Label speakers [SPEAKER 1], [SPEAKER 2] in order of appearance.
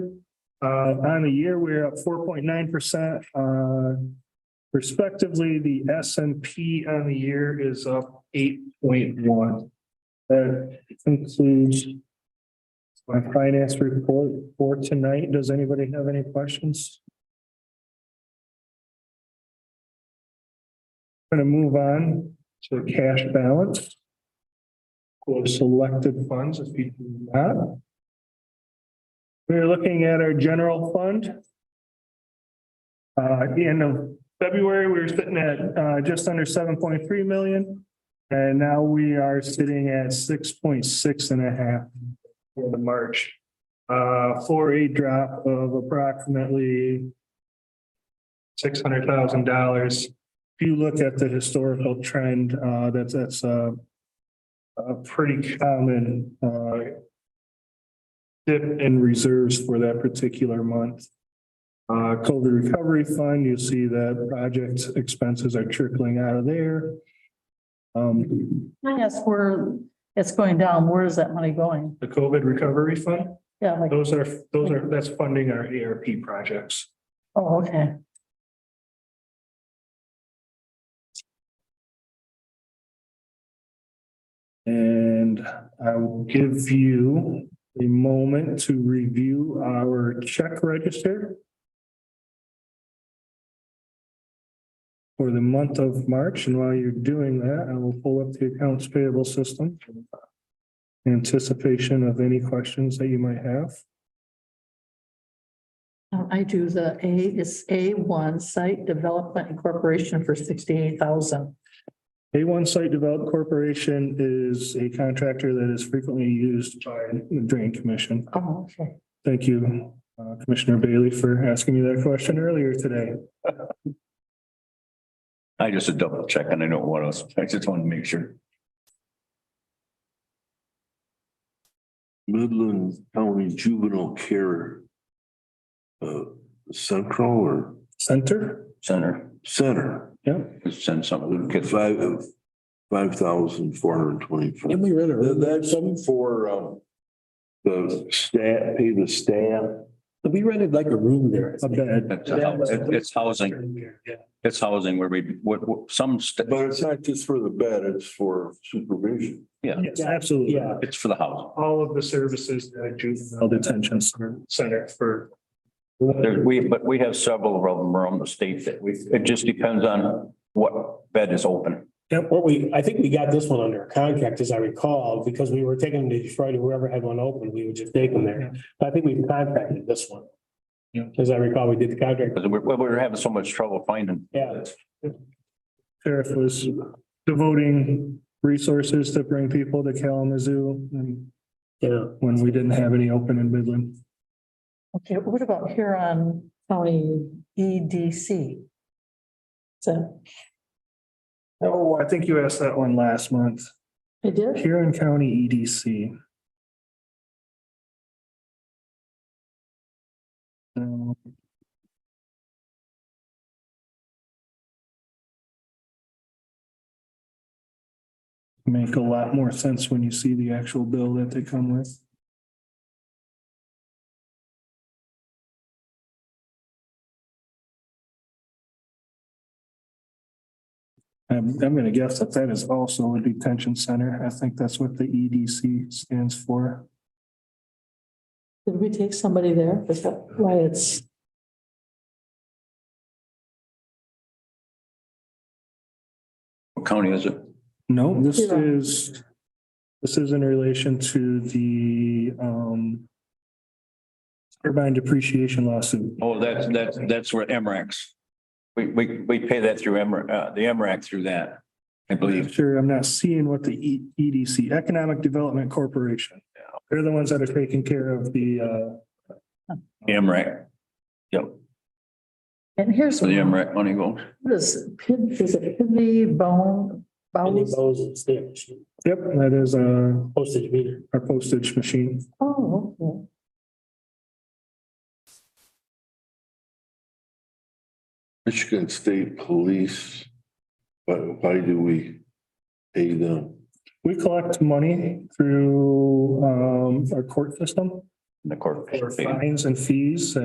[SPEAKER 1] Uh, on the year, we're up four point nine percent, uh, respectively, the S and P on the year is up eight point one. That concludes my finance report for tonight. Does anybody have any questions? Going to move on to cash balance. Or selected funds if you do that. We're looking at our general fund. Uh, at the end of February, we were sitting at, uh, just under seven point three million. And now we are sitting at six point six and a half in March. Uh, for a drop of approximately six hundred thousand dollars. If you look at the historical trend, uh, that's, that's, uh, a pretty common, uh, dip in reserves for that particular month. Uh, COVID recovery fund, you see that project expenses are trickling out of there. Um,
[SPEAKER 2] Can I ask where it's going down, where is that money going?
[SPEAKER 1] the COVID recovery fund.
[SPEAKER 2] Yeah, like,
[SPEAKER 1] Those are, those are, that's funding our ARP projects.
[SPEAKER 2] oh, okay.
[SPEAKER 1] And I will give you a moment to review our check register for the month of March, and while you're doing that, I will pull up the accounts payable system in anticipation of any questions that you might have.
[SPEAKER 2] Um, I do the A, it's A one Site Development Incorporation for sixty-eight thousand.
[SPEAKER 1] A one Site Develop Corporation is a contractor that is frequently used by the Drain Commission.
[SPEAKER 2] Oh, okay.
[SPEAKER 1] Thank you, uh, Commissioner Bailey, for asking me that question earlier today.
[SPEAKER 3] I just a double check and I know what else. I just wanted to make sure.
[SPEAKER 4] Midland County Juvenile Care. Uh, Central or
[SPEAKER 1] Center?
[SPEAKER 3] Center,
[SPEAKER 4] Center,
[SPEAKER 1] Yeah.
[SPEAKER 3] send some of them kids.
[SPEAKER 4] five, five thousand four hundred twenty-four.
[SPEAKER 5] Didn't we read it?
[SPEAKER 4] That's something for, um. The staff, pay the staff.
[SPEAKER 5] We rented like a room there.
[SPEAKER 1] A bed.
[SPEAKER 3] It's, a hou- it- it's housing, it's housing where we, what, what, some, st-
[SPEAKER 4] But it's not just for the bed, it's for supervision.
[SPEAKER 1] Yes, absolutely.
[SPEAKER 5] Yeah.
[SPEAKER 3] it's for the housing.
[SPEAKER 1] All of the services that a juvenile detention center for.
[SPEAKER 3] There, we, but we have several of them around the state that we, it just depends on what bed is open.
[SPEAKER 5] What we, I think we got this one under a contract, as I recall, because we were taking them to Detroit, and whoever had one open, we would just take them there. But I think we contracted this one.
[SPEAKER 1] Yeah.
[SPEAKER 5] As I recall, we did the contract,
[SPEAKER 3] Because we're, we're having so much trouble finding.
[SPEAKER 5] yeah.
[SPEAKER 1] Sheriff was devoting resources to bring people to Kalamazoo and
[SPEAKER 5] Yeah.
[SPEAKER 1] when we didn't have any open in Midland.
[SPEAKER 2] Okay, what about Huron County E EDC? So,
[SPEAKER 1] Oh, I think you asked that one last month.
[SPEAKER 2] I did,
[SPEAKER 1] Huron County E EDC. Um, Make a lot more sense when you see the actual bill that they come with. I'm, I'm gonna guess that that is also a detention center. I think that's what the EDC stands for.
[SPEAKER 2] did we take somebody there? Is that why it's?
[SPEAKER 3] What county is it?
[SPEAKER 1] No, this
[SPEAKER 2] Yeah.
[SPEAKER 1] is, this is in relation to the, um, turbine depreciation lawsuit.
[SPEAKER 3] Oh, that's, that's, that's where MRAX. We, we, we pay that through MR, uh, the MRAC through that, I believe.
[SPEAKER 1] Sure, I'm not seeing what the E- EDC, Economic Development Corporation. They're the ones that are taking care of the, uh,
[SPEAKER 3] MRAC. Yep,
[SPEAKER 2] And here's.
[SPEAKER 3] so the MRAC money goes.
[SPEAKER 2] What is, Pid- is it Pitney Bone?
[SPEAKER 5] And
[SPEAKER 2] Bowes?
[SPEAKER 5] those is their machine,
[SPEAKER 1] yep, that is, uh,
[SPEAKER 5] postage meter.
[SPEAKER 1] our postage machine.
[SPEAKER 2] Oh, okay.
[SPEAKER 4] Michigan State Police, but why do we pay them?
[SPEAKER 1] We collect money through, um, our court system
[SPEAKER 3] The court.
[SPEAKER 1] for fines and fees